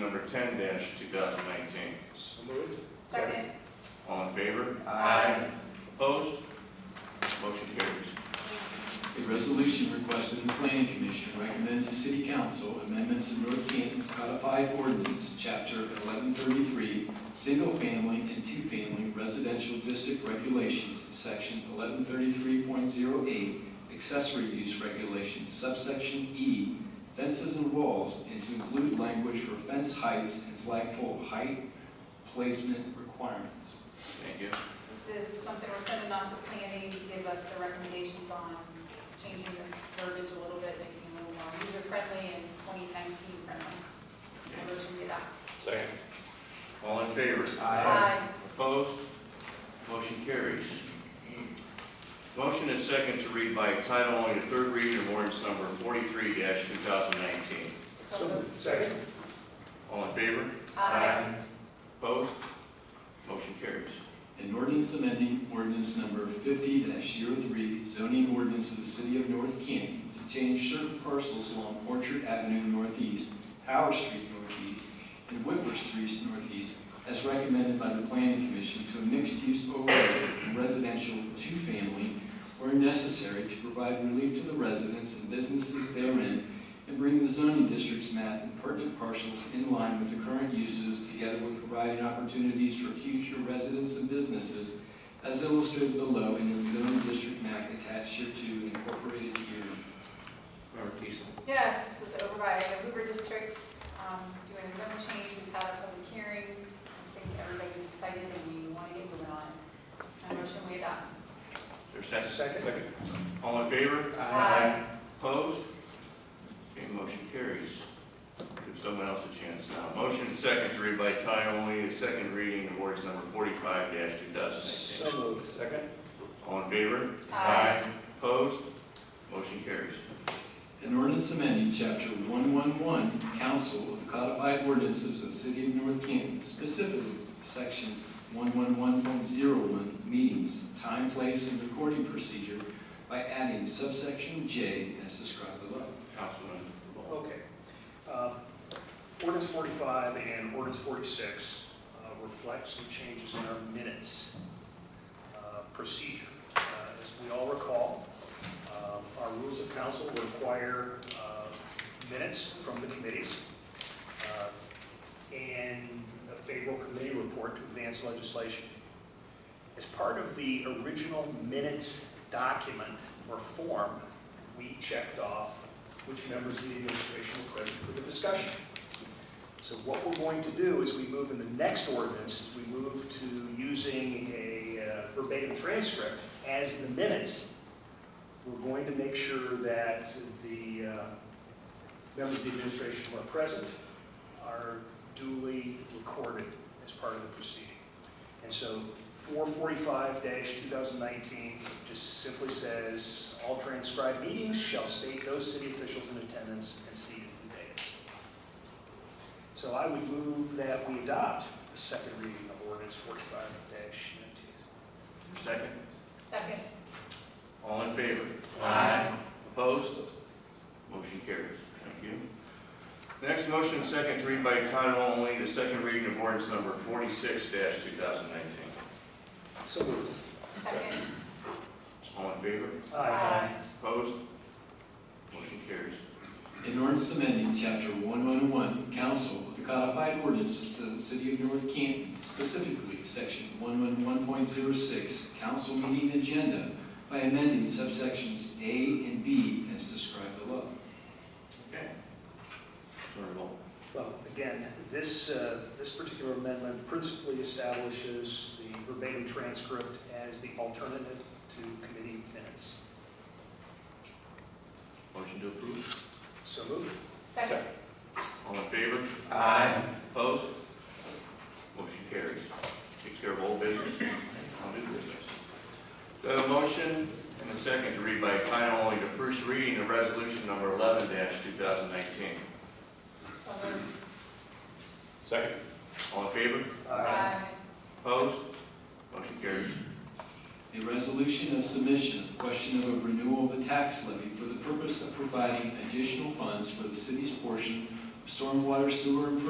number ten two thousand nineteen. So moved. Second. All in favor? Opposed? Motion carries. A resolution requesting the planning commission recommends the city council amendments in North Canton's codified ordinance, chapter eleven thirty-three, single-family and two-family residential district regulations, section eleven thirty-three point zero eight, accessory use regulations, subsection E, fences and walls, and to include language for fence heights and flagpole height placement requirements. Thank you. This is something we're sending off to planning to give us the recommendations on changing this verbiage a little bit, making it a little more user-friendly and 2019 friendly. I motion to adopt. Second. All in favor? Aye. Opposed? Motion carries. Motion is second to read by title only the third reading of ordinance number forty-three two thousand nineteen. So moved. Second. All in favor? Aye. Opposed? Motion carries. An ordinance amending ordinance number fifty 3 zoning ordinance of the city of North Canton to change certain parcels along Orchard Avenue Northeast, Howard Street Northeast, and Whitworth Street Northeast, as recommended by the planning commission to a mixed-use overlay and residential two-family where necessary to provide relief to the residents and businesses therein and bring the zoning district's map and pertinent parcels in line with the current uses, together with providing opportunities for future residents and businesses, as illustrated below in the zoning district map attached here to and incorporated herein. Member Peasley? Yes, this is over by the Hoover District, um, doing a zone change, we've had our public hearings. I think everybody's excited and we want to get moving on. I motion we adopt. There's second? Second. All in favor? Aye. Opposed? Okay, motion carries. Give someone else a chance now. Motion is second to read by title only, the second reading of ordinance number forty-five two thousand nineteen. So moved. Second. All in favor? Aye. Opposed? Motion carries. An ordinance amending chapter one-one-one, council of the codified ordinances of the city of North Canton, specifically section one-one-one-point-zero-one, meetings, time, place, and recording procedure by adding subsection J as described below. Councilman Ball. Okay. Uh, Ordinance forty-five and ordinance forty-six uh, reflect some changes in our minutes uh, procedure. Uh, As we all recall, um, our rules of council require uh, minutes from the committees uh, and a favorable committee report to advance legislation. As part of the original minutes document or form, we checked off which members of the administration were present for the discussion. So what we're going to do is we move in the next ordinance, we move to using a uh, verbatim transcript as the minutes. We're going to make sure that the uh, members of the administration who are present are duly recorded as part of the proceeding. And so 445-2019 just simply says, "All transcribed meetings shall state those city officials in attendance and seated in the dais." So I would move that we adopt the second reading of ordinance 45-19. Second? Second. All in favor? Aye. Opposed? Motion carries. Thank you. Next, motion is second to read by title only, the second reading of ordinance number forty-six two thousand nineteen. So moved. Second. All in favor? Aye. Opposed? Motion carries. In ordinance amending chapter one one one, council of the codified ordinances of the city of North Canton, specifically section one one one point zero six, council meeting agenda by amending subsections A and B as described below. Okay. Sort of all. Well, again, this, uh, this particular amendment principally establishes the verbatim transcript as the alternative to committee minutes. Motion to approve. So moved. Second. All in favor? Aye. Opposed? Motion carries. Takes care of all business. Now new business. The motion and the second to read by title only the first reading of resolution number eleven two thousand nineteen. So moved. Second. All in favor? Aye. Opposed? Motion carries. A resolution of submission of question of a renewal of a tax levy for the purpose of providing additional funds for the city's portion of stormwater sewer improvement